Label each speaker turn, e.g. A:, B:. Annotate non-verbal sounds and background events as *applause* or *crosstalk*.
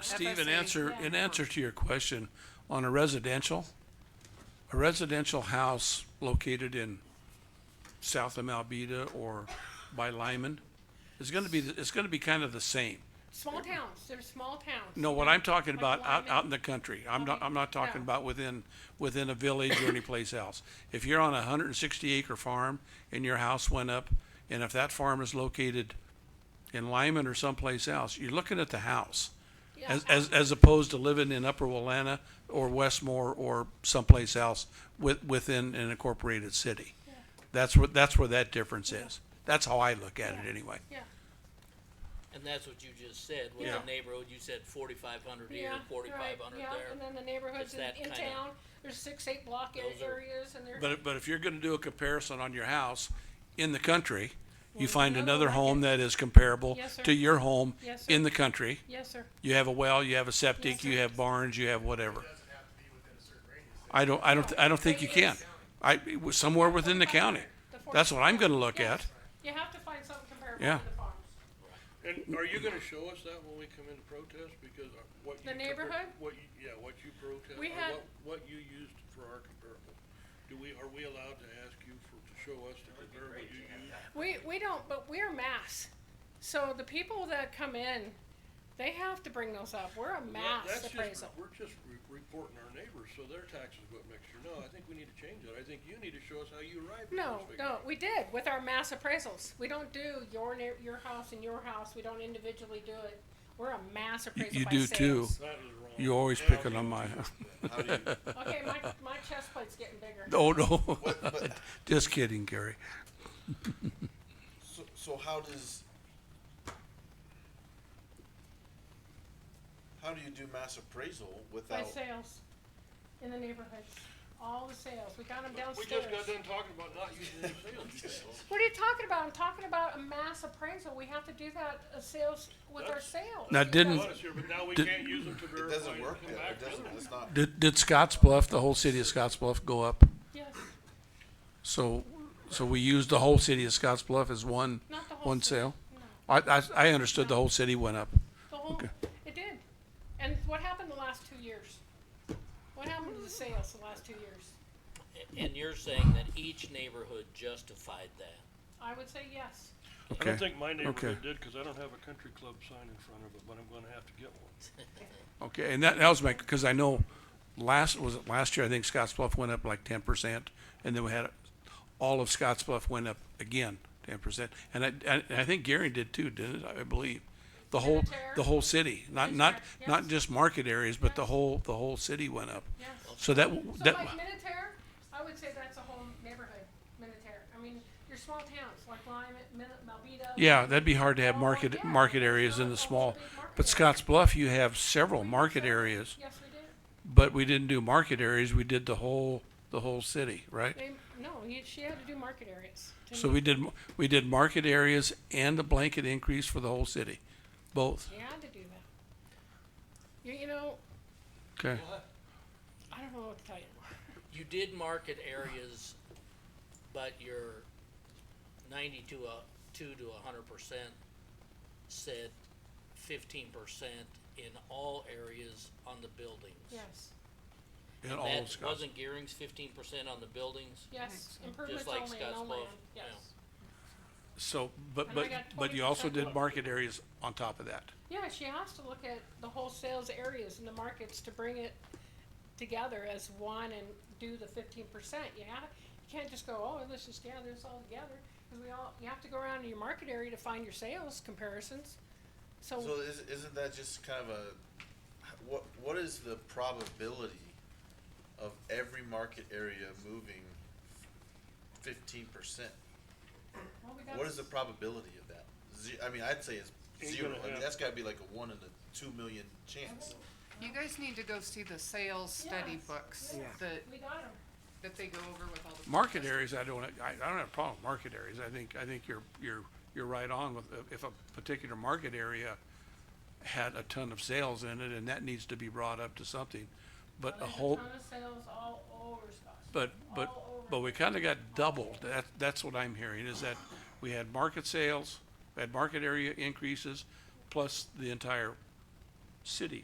A: Steve, in
B: FSA,
A: answer,
B: yeah.
A: in answer to your question, on a residential, a residential house located in south of Malbida or by Lyman, is gonna be, it's gonna be kind of the same.
B: Small towns, there's small towns.
A: No, what I'm talking
B: Like
A: about, out,
B: Lyman.
A: out in the country, I'm not,
B: Okay,
A: I'm not talking
B: yeah.
A: about within, within a village or anyplace else. If you're on a hundred and sixty acre farm and your house went up, and if that farm is located in Lyman or someplace else, you're looking at the house.
B: Yeah,
A: As, as, as opposed to living in Upper Wilana or Westmore or someplace else with, within an incorporated city. That's what, that's where that difference is. That's how I look at it anyway.
B: Yeah,
C: And that's what you just said, with
A: Yeah.
C: the neighborhood, you said forty-five hundred
B: yeah,
C: here,
B: you're
C: forty-five
B: right,
C: hundred
B: yeah, and
C: there.
B: then the neighborhoods
C: It's
B: in,
C: that
B: in
C: kinda-
B: town, there's six, eight block a-
C: Those are-
B: areas and they're,
A: But, but if you're gonna do a comparison on your house in the country, you
B: there's
A: find another
B: another like
A: home
B: it.
A: that is comparable
B: Yes, sir.
A: to your home
B: Yes, sir.
A: in the country.
B: yes, sir.
A: You have a well, you have a
B: Yes,
A: septic,
B: sir.
A: you have barns, you have whatever.
D: doesn't have to be within a certain radius.
A: I don't, I don't, I don't think you can. I, it was somewhere within the county. That's what I'm gonna look
B: Yes.
A: at.
B: You have to find something comparable
A: Yeah.
B: to the farms.
E: And are you gonna show us that when we come in to protest, because uh, what you.
B: The
E: compar-
B: neighborhood?
E: What you, yeah, what you protest, or
B: We had-
E: what, what you used for our comparable, do we, are we allowed to ask you for, to show us the comparable you used?
B: We, we don't, but we're mass. So the people that come in, they have to bring those up. We're a
E: That-
B: mass
E: that's just re-
B: appraisal.
E: We're just re- reporting our neighbors, so their taxes go up next year, no, I think we need to change that, I think you need to show us how you arrived at
B: No,
E: those figures.
B: no, we did with our mass appraisals. We don't do your, neigh- your house and your house. We don't individually do it. We're a mass appraisal
A: you
B: by
A: do too.
B: sales.
E: That is wrong.
A: You're always
E: Now,
A: picking
E: you-
A: on my, *laughs*
B: Okay, my, my chest plate's getting bigger.
A: oh no, *laughs* just kidding, Gary.
D: So, so how does? How do you do mass appraisal
B: By
D: without?
B: sales in the neighborhoods, all the sales. We got them
E: We
B: downstairs.
E: just got done talking about not using any sales tax.
B: What are you talking about? I'm talking about a mass appraisal. We have to do that, uh, sales, with our
E: That's-
B: sales.
A: Now,
B: That's-
A: didn't-
E: Honest here, But now we
A: Did-
E: can't use them to
D: It
E: verify.
D: doesn't
E: and
D: work.
E: come
D: that-
E: back
D: It
E: to
D: doesn't.
E: them.
D: It's not.
A: Did, did Scottsbluff, the whole city of Scottsbluff, go up?
B: Yes,
A: So, so we used the whole city of Scottsbluff as one,
B: not the whole.
A: one
B: city.
A: sale?
B: No.
A: I, I, I understood the whole city went up.
B: The whole,
A: Okay.
B: it did. And what happened the last two years? What happened to the sales the last two years?
C: And you're saying that each neighborhood justified that.
B: I would say yes.
E: I don't
A: Okay.
E: think my neighborhood
A: Okay.
E: did, cause I don't have a country club sign in front of it, but I'm gonna have to get one.
A: Okay, and that, that was my, because I know last, was it last year, I think Scottsbluff went up like ten percent, and then we had, all of Scottsbluff went up again, ten percent. And I, I, and I think Gary did too, didn't it, I believe? The whole,
B: tear?
A: the whole city, not, not,
B: Tear,
A: not
B: yes.
A: just market areas, but the
B: Yes.
A: whole, the whole city went up.
B: Yes.
A: So that,
B: So
A: that,
B: like Minutair, I would say that's a whole neighborhood, Minutair. I mean, your small towns like Lyme, Min- Malbida.
A: yeah, that'd be hard to have
B: Oh,
A: market,
B: yeah,
A: market
B: there's
A: areas
B: not
A: in
B: a
A: the
B: whole
A: small,
B: big market
A: but
B: area.
A: Scottsbluff, you have several market areas,
B: Yes, we did.
A: but we didn't do market areas, we did the whole, the whole city, right?
B: They, no, you, she had to do market areas. to
A: So
B: me.
A: we did, we did market areas and a blanket increase for the whole city, both,
B: She had to do that. You, you know,
A: okay?
B: I don't know what to tell you.
C: You did market areas, but your ninety-two, uh, two to a hundred percent said fifteen percent in all areas on the buildings.
B: Yes,
A: In all
C: That
A: of Scotts-
C: wasn't Gearing's fifteen percent on the buildings?
B: yes, improvements
C: like
B: only, no
C: Scottsbluff,
B: land, yes.
C: yeah.
A: So, but,
B: And I
A: but,
B: got
A: but you also
B: 20%
A: did
B: more.
A: market areas on top of that.
B: Yeah, she has to look at the whole sales areas and the markets to bring it together as one and do the fifteen percent. You have, you can't just go, oh, let's just gather this all together, cause we all, you have to go around to your market area to find your sales comparisons.
D: So
B: So,
D: is, isn't that just kind of a, what, what is the probability of every market area moving fifteen percent?
B: well, we got.
D: What is the probability of that? Ze- I mean, I'd say it's
E: Ain't
D: zero.
E: gonna
D: I mean,
E: happen.
D: that's gotta be like a one in a two million chance.
F: You guys need to go see the sales study
B: Yes,
F: books
B: yes.
F: that,
B: We got 'em.
F: that they go over with all the.
A: Market
F: protests.
A: areas, I don't, I, I don't have a problem with market areas, I think, I think you're, you're, you're right on with, if a particular market area had a ton of sales in it, and that needs to be brought up to something, but a
B: There's
A: whole,
B: ton of sales all over Scottsdale.
A: But, but,
B: all over.
A: but we kinda got doubled, that, that's what I'm hearing, is that we had market sales, we had market area increases, plus the entire city